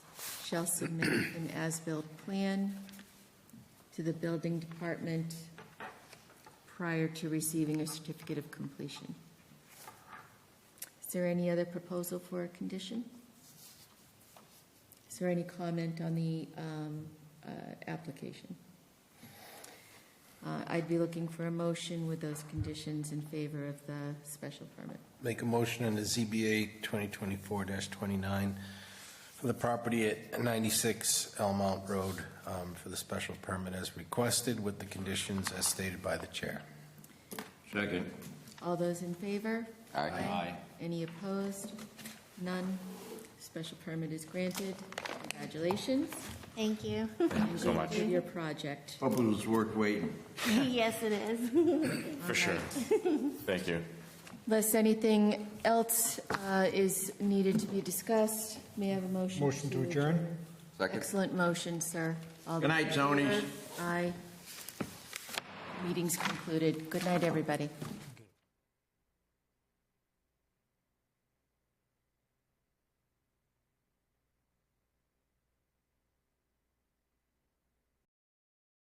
shall submit an as-built plan to the building department prior to receiving a certificate of completion. Is there any other proposal for a condition? Is there any comment on the um, uh, application? Uh, I'd be looking for a motion with those conditions in favor of the special permit. Make a motion on the ZBA 2024-29 for the property at 96 Elmont Road um, for the special permit as requested with the conditions as stated by the chair. Second. All those in favor? Aye. Aye. Any opposed? None. Special permit is granted. Congratulations. Thank you. Thank you so much. Enjoy your project. Hope it was worth waiting. yes, it is. For sure. Thank you. Unless anything else uh, is needed to be discussed, may I have a motion? Motion to adjourn? Second. Excellent motion, sir. All Good those night, in Zonies. favor? Aye. Meeting's concluded. Good night, everybody.